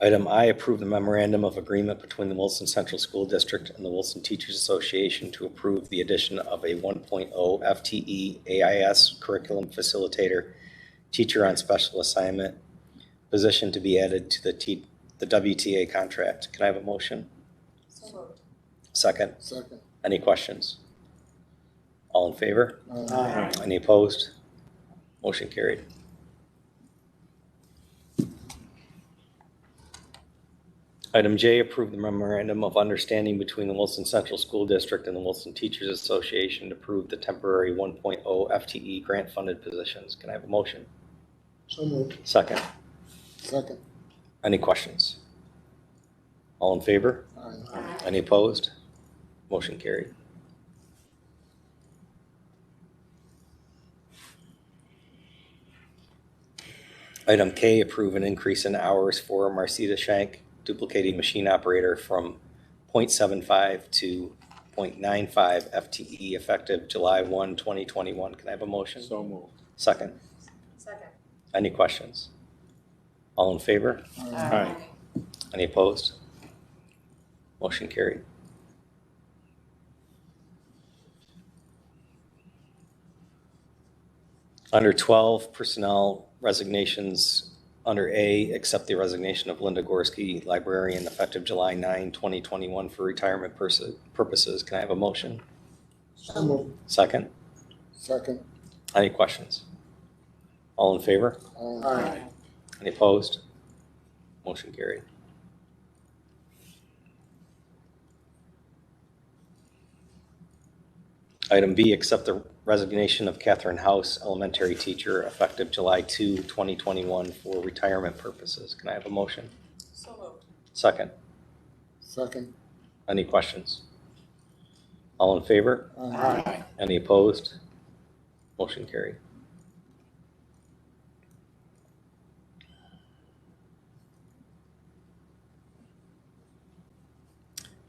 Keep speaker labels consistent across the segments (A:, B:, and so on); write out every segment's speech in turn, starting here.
A: Item I, approve the memorandum of agreement between the Wilson Central School District and the Wilson Teachers Association to approve the addition of a 1.0 FTE AIS curriculum facilitator, teacher on special assignment, position to be added to the T, the WTA contract. Can I have a motion?
B: So moved.
A: Second,
C: Second.
A: any questions? All in favor?
C: Aye.
A: Any opposed? Motion carried. Item J, approve the memorandum of understanding between the Wilson Central School District and the Wilson Teachers Association to approve the temporary 1.0 FTE grant-funded E positions. Can I have a motion?
C: So moved.
A: Second.
C: Second.
A: Any questions? All in favor?
C: Aye.
A: Any opposed? Motion carried. Item K, approve an increase in hours for Marcita Shank, duplicating machine operator from .75 to .95 FTE E, effective July 1, 2021. Can I have a motion?
D: So moved.
A: Second.
B: Second.
A: Any questions? All in favor?
D: Aye.
A: Any opposed? Motion carried. Under 12, personnel resignations. Under A, accept the resignation of Linda Gorski, librarian, effective July 9, 2021, for retirement pers- purposes. Can I have a motion?
C: So moved.
A: Second.
C: Second.
A: Any questions? All in favor?
C: Aye.
A: Any opposed? Motion carried. Item B, accept the resignation of Catherine House, elementary teacher, effective July 2, 2021, for retirement purposes. Can I have a motion?
B: So moved.
A: Second.
C: Second.
A: Any questions? All in favor?
C: Aye.
A: Any opposed? Motion carried.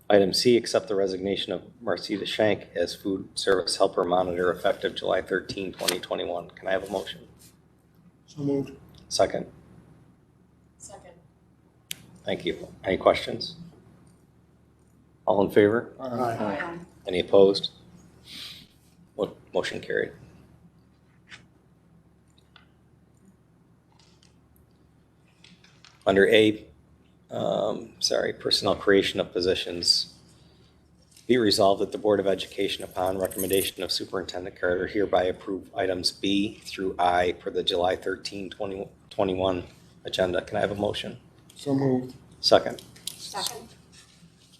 A: Item C, accept the resignation of Marcita Shank as food service helper monitor effective July 13, 2021. Can I have a motion?
C: So moved.
A: Second.
B: Second.
A: Thank you. Any questions? All in favor?
C: Aye.
B: Aye.
A: Any opposed? Mo- Motion carried. Under A, um, sorry, personnel creation of positions. Be resolved that the Board of Education, upon recommendation of Superintendent Carter, hereby approve items B through I per the July 13, 2021 agenda. Can I have a motion?
C: So moved.
A: Second.
B: Second.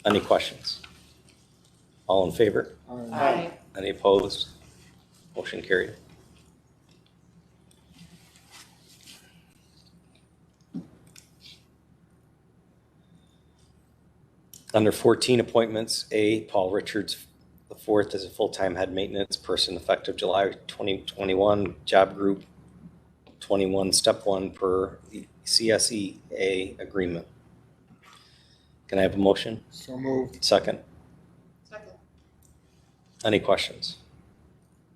A: Any questions? All in favor?
B: Aye.
A: Any opposed? Motion carried. Under 14 appointments, A, Paul Richards IV is a full-time head maintenance person effective July 2021, job group 21, step 1 per the CSEA agreement. Can I have a motion?
C: So moved.
A: Second.
B: Second.
A: Any questions?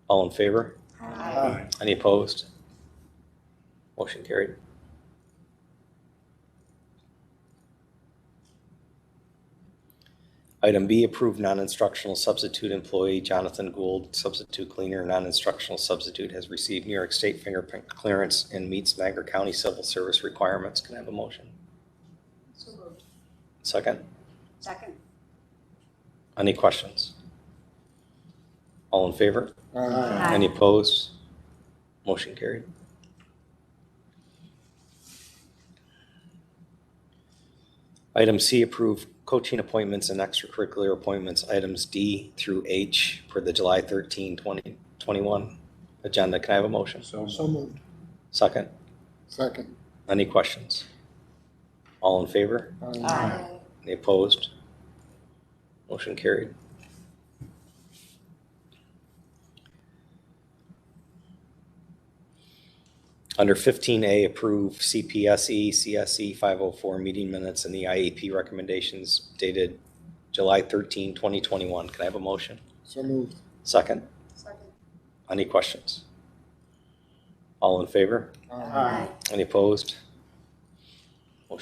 A: All in favor?
C: Aye.
A: Any opposed? Motion carried. Item B, approve non-instructional substitute employee Jonathan Gould, substitute cleaner, non-instructional substitute, has received New York State fingerprint clearance and meets Niagara County Civil Service requirements. Can I have a motion?
B: So moved.
A: Second.
B: Second.
A: Any questions? All in favor?
C: Aye.
A: Any opposed? Motion carried. Item C, approve coaching appointments and extracurricular appointments, items D through H for the July 13, 2021 agenda. Can I have a motion?
D: So moved.
C: So moved.
A: Second.
C: Second.
A: Any questions? All in favor?
B: Aye.
A: Any opposed? Motion carried. Under 15A, approve CPSE, CSE 504 meeting minutes and the IEP recommendations dated July 13, 2021. Can I have a motion?
C: So moved.
A: Second.
B: Second.
A: Any questions? All in favor? Any opposed?